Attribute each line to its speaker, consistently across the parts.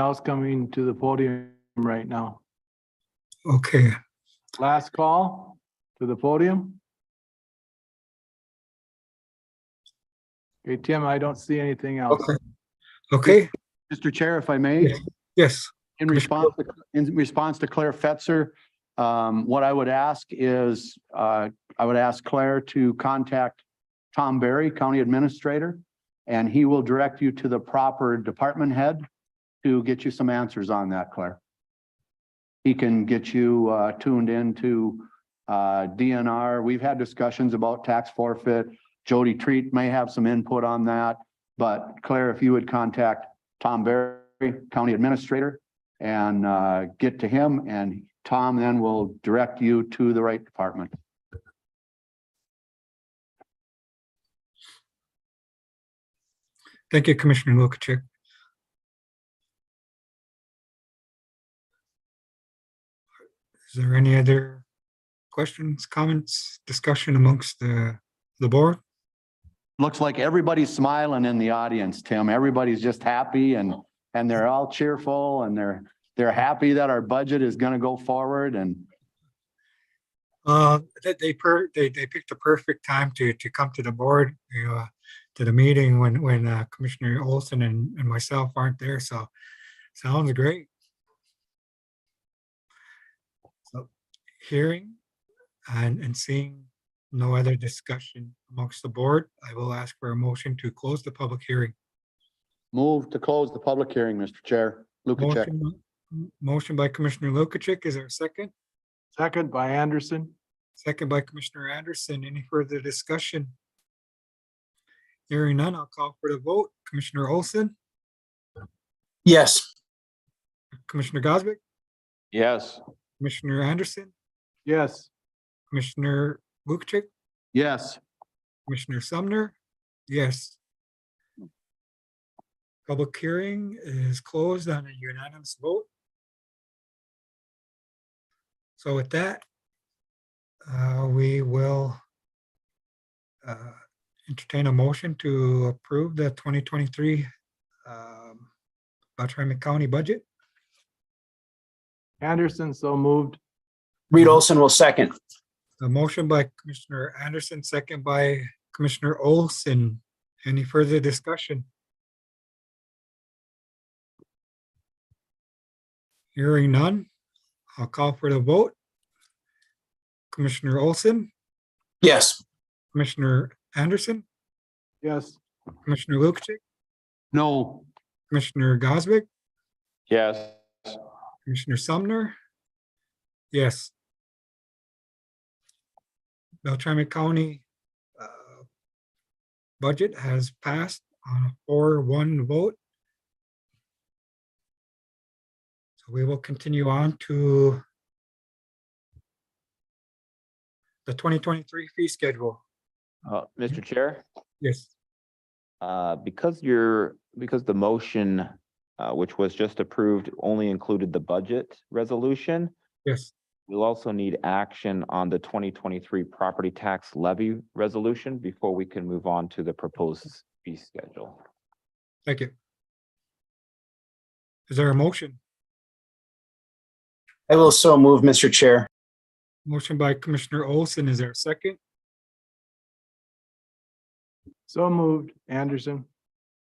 Speaker 1: else coming to the podium right now.
Speaker 2: Okay,
Speaker 1: Last call to the podium. Okay, Tim, I don't see anything else.
Speaker 2: okay. Okay,
Speaker 3: Mr. Chair, if I may,
Speaker 2: yes,
Speaker 3: in response, to- in response to Claire Fetzer, um, what I would ask is, uh, I would ask Claire to contact Tom Barry, County Administrator, and he will direct you to the proper department head to get you some answers on that, Claire. He can get you, uh, tuned into, uh, DNR. We've had discussions about tax forfeit. Jody Treat may have some input on that, but Claire, if you would contact Tom Barry, County Administrator, and uh, get to him, and Tom then will direct you to the right department.
Speaker 2: thank you, Commissioner Lukic. Is there any other questions, comments, discussion amongst the, the board?
Speaker 3: Looks like everybody's smiling in the audience, Tim. Everybody's just happy and, and they're all cheerful and they're, they're happy that our budget is going to go forward and
Speaker 2: Uh, that they per, they, they picked the perfect time to, to come to the board, you know, uh, to the meeting when, when uh, Commissioner Olson and, and myself aren't there, so sounds great. So hearing and, and seeing no other discussion amongst the board, I will ask for a motion to close the public hearing.
Speaker 3: move to close the public hearing, Mr. Chair. Lukacek.
Speaker 2: Motion- m- Motion by Commissioner Lukic, is there a second?
Speaker 1: Second by Anderson.
Speaker 2: Second by Commissioner Anderson. Any further discussion? Hearing none, I'll call for the vote. Commissioner Olson,
Speaker 4: Yes.
Speaker 2: Commissioner Goswick,
Speaker 3: Yes.
Speaker 2: Commissioner Anderson,
Speaker 1: Yes.
Speaker 2: Commissioner Lukic,
Speaker 3: Yes.
Speaker 2: Commissioner Sumner. Yes. Public hearing is closed on a unanimous vote. So with that, uh, we will uh, entertain a motion to approve the 2023 um, Beltrami County budget.
Speaker 1: Anderson, so moved.
Speaker 4: Reed Olson will second.
Speaker 2: Mm-hmm. A motion by Commissioner Anderson, second by Commissioner Olson. Any further discussion? Hearing none, I'll call for the vote. Commissioner Olson,
Speaker 4: Yes.
Speaker 2: Commissioner Anderson,
Speaker 1: Yes.
Speaker 2: Commissioner Lukic,
Speaker 3: No.
Speaker 2: Commissioner Goswick,
Speaker 3: Yes.
Speaker 2: Commissioner Sumner? Yes. Beltrami County uh, budget has passed on a four-one vote. So we will continue on to the twenty twenty-three fee schedule.
Speaker 5: Uh, Mr. Chair,
Speaker 2: Yes,
Speaker 5: uh, because your because the motion, uh, which was just approved, only included the budget resolution,
Speaker 2: yes.
Speaker 5: we'll also need action on the twenty twenty-three property tax levy resolution before we can move on to the proposed fee schedule.
Speaker 2: Thank you. Is there a motion?
Speaker 4: I will so move, Mr. Chair.
Speaker 2: Motion by Commissioner Olson. Is there a second?
Speaker 1: So moved. Anderson.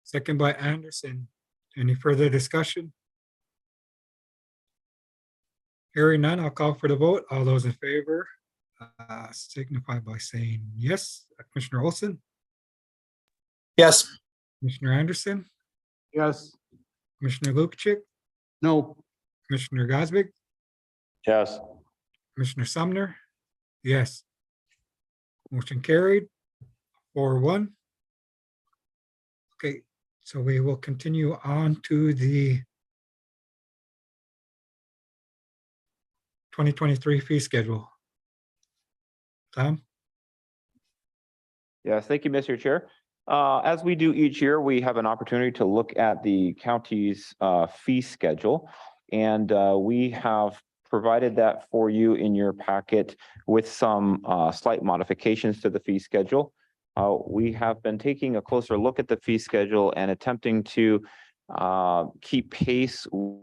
Speaker 2: Second by Anderson. Any further discussion? Hearing none, I'll call for the vote. All those in favor uh, signify by saying yes. Commissioner Olson,
Speaker 4: Yes.
Speaker 2: Commissioner Anderson,
Speaker 1: Yes.
Speaker 2: Commissioner Lukic,
Speaker 3: No.
Speaker 2: Commissioner Goswick,
Speaker 3: Yes.
Speaker 2: Commissioner Sumner. Yes. Motion carried four one. Okay, so we will continue on to the twenty twenty-three fee schedule. Tom?
Speaker 5: Yes, thank you, Mr. Chair. Uh, As we do each year, we have an opportunity to look at the county's uh, fee schedule. And uh, we have provided that for you in your packet with some uh, slight modifications to the fee schedule. Uh, We have been taking a closer look at the fee schedule and attempting to
Speaker 3: uh, keep pace